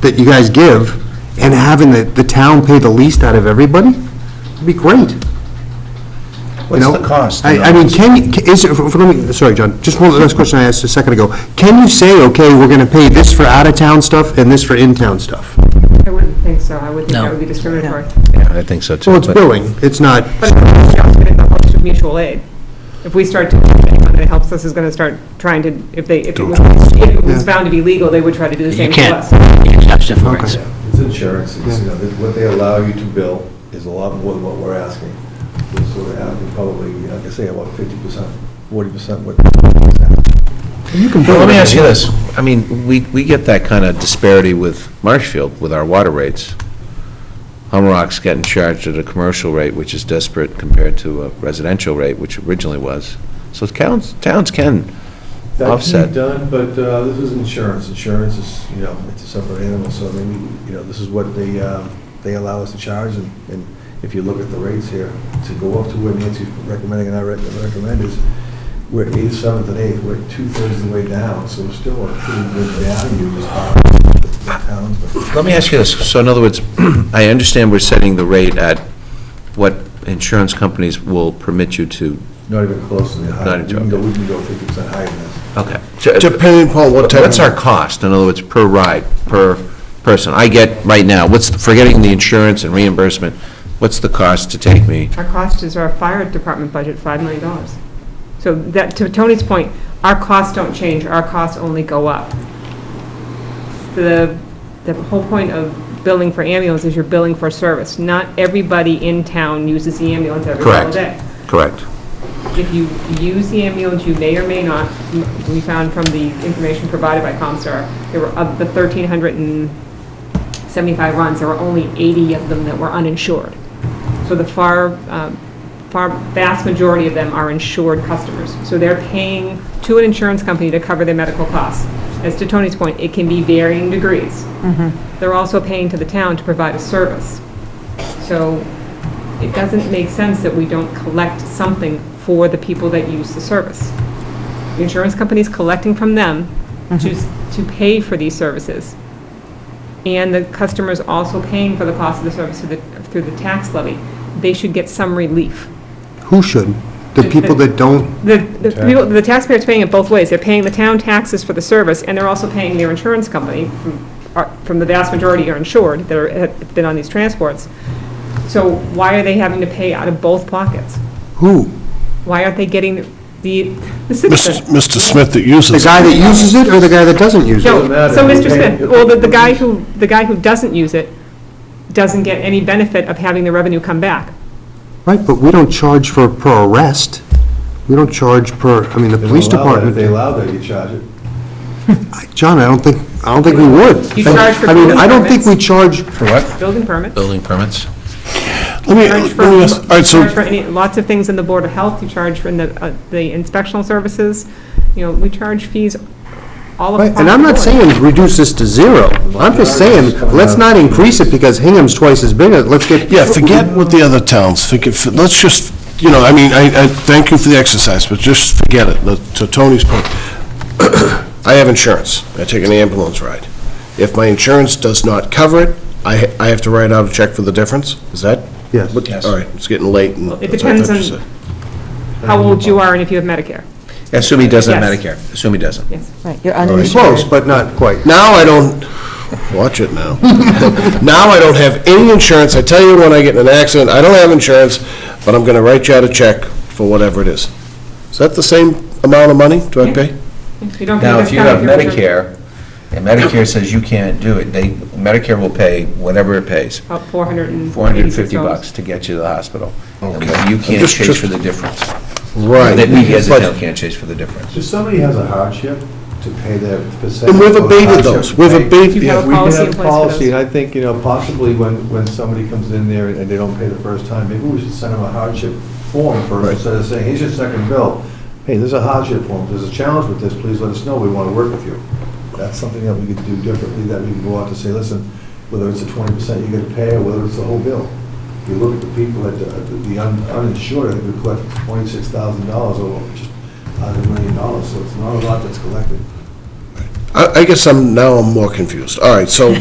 that you guys give and having the, the town pay the least out of everybody, would be great. What's You the know, cost? I, I mean, can, you- ca- is, it- for- for- let me, sorry, John, just one last question I asked a second ago. Can you say, okay, we're gonna pay this for out-of-town stuff and this for in-town stuff? I wouldn't think so. I would think No. that would be discriminatory. Yeah, I think so too. So it's but- billing, it's not, But it's just going to help us with mutual aid. If we start doing anyone that helps us is going to start trying to, if they, if it was, if it was found to be legal, they would try to do the You same to can't, us. you can't touch it for us. It's insurance, it's, you know, that what they allow you to bill is a lot more than what we're asking. We're sort of asking probably, like I say, about fifty percent, forty percent what. Well, let me ask you this. I mean, we, we get that kind of disparity with Marshfield, with our water rates. Humrock's getting charged at a commercial rate, which is desperate compared to a residential rate, which originally was. So towns, towns can, That's Offset. done, but uh, this is insurance, insurance is, you know, it's a separate animal, so I mean, you know, this is what they, um, they allow us to charge, and, and if you look at the rates here, to go up to where Nancy's recommending and I rec- recommend is, we're eighth, seventh, and eighth, we're two-thirds of the way down, so we're still a pretty good value as far as the towns, but let me ask you this. So in other words, I understand we're setting the rate at what insurance companies will permit you to, not even close to the high. Not We even can go, joking. we can go fifty percent higher than this. okay. Depending upon what type uh, What's our of, cost, in other words, per ride, per person? I get, right now, what's, forgetting the insurance and reimbursement, what's the cost to take me? Our cost is our fire department budget, $5 million. So that, to Tony's point, our costs don't change, our costs only go up. The, the whole point of billing for ambulance is you're billing for service. Not everybody in town uses the ambulance every single Correct. day. Correct. If you use the ambulance, you may or may not, m- we found from the information provided by ComStar, there were, of the 1,375 runs, there were only 80 of them that were uninsured. So the far, um, far, vast majority of them are insured customers. So they're paying to an insurance company to cover their medical costs. As to Tony's point, it can be varying degrees. They're also paying to the town to provide a service. So it doesn't make sense that we don't collect something for the people that use the service. The insurance company's collecting from them to, s- to pay for these services. And the customer's also paying for the cost of the service through the, through the tax levy. They should get some relief. who should? The people that don't, The, the people, the taxpayer's paying it both ways. They're paying the town taxes for the service, and they're also paying their insurance company, from- are- from the vast majority are insured, that are, have been on these transports. So why are they having to pay out of both pockets? who? Why aren't they getting the, the Mis- citizen? Mr. Smith that uses. The it. guy that uses it or the guy that doesn't use it? No, matter. so We're Mr. paying- Smith, well, the, the guy who, the guy who doesn't use it doesn't get any benefit of having the revenue come back. Right, but we don't charge for, per arrest. We don't charge per, I mean, the They don't police allow that. department. If they allow that, you charge it. John, I don't think, I don't think we would. You charge for I mean, I don't think building we charge, For what? Building permits, Building permits? Let me, charge let for, me ask, all right, charge for so, any, lots of things in the Board of Health, you charge for in the, uh, the inspectional services, you know, we charge fees all right, across and I'm the not board. saying reduce this to zero. I'm just saying, let's not increase it because Hingham's twice as big, let's get. yeah, forget what the other towns, forget, for- let's just, you know, I mean, I, I thank you for the exercise, but just forget it, Let- to Tony's point. I have insurance, I take an ambulance ride. If my insurance does not cover it, I, ha- I have to write out a check for the difference, is that? Yes. what- All right, it's getting late and. It depends on how old you are and if you have Medicare, Assume he doesn't have Yes. Medicare. Assume he doesn't. yes. Right, you're Close, uninsured. but not quite. Now I don't, watch it now. Now I don't have any insurance. I tell you when I get in an accident, I don't have insurance, but I'm going to write you out a check for whatever it is. Is that the same amount of money do I pay? You don't Now, think if you have that's covered, you're- Medicare, and Medicare says you can't do it, they, Medicare will pay whatever it pays, About four hundred and. four hundred and fifty bucks to get you to the hospital. And You can't Just- chase just- for the difference. Right. That we as a But- town can't chase for the difference. If somebody has a hardship to pay their percentage. And we've of abated hardship those. We've pay, abated, You have yeah. a We can policy in place have for policy, those. and I think, you know, possibly when, when somebody comes in there and they don't pay the first time, maybe we should send them a hardship form first, instead of saying, here's your second bill. Hey, there's a hardship form, there's a challenge with this, please let us know, we want to work with you. That's something that we could do differently, that we can go out to say, listen, whether it's a twenty percent you gotta pay, or whether it's the whole bill. If you look at the people that, uh, the the un- uninsured, I think we collect twenty-six thousand dollars over just out of a million dollars, so it's not a lot that's collected. I I guess I'm, now I'm more confused. All right, so